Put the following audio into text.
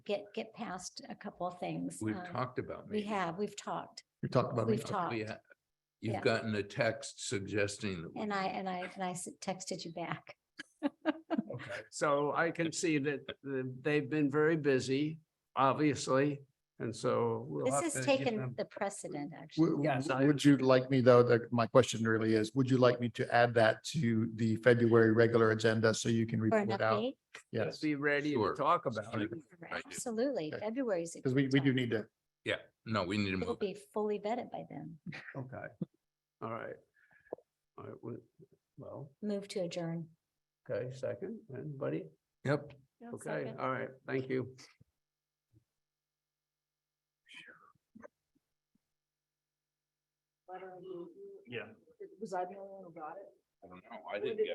get, get past a couple of things. We've Um, talked about. We maybe. have, we've talked We talked about. We've it. talked. Yeah. Yeah. You've gotten a text suggesting. that we- and I, and I, and I s- texted you back. Okay, so I can see that the- they've been very busy, obviously, and so. we'll This have has to give taken them- the precedent, actually. W- w- Yes, I Would you like me though, the, my question really is, would you like me to add that to the February regular agenda so you can For an report it out? update, Yes, Be ready to Sure. talk about it. I do. absolutely. Okay. February's. because we, we do need to, Yeah, no, we need to It'll move. be fully vetted by then. Okay. All right. All right, we- well, Move to adjourn. okay, second, anybody? Yep. Okay, all right, thank you. letter? Yeah. Was I the only one who got it? I don't know. I didn't get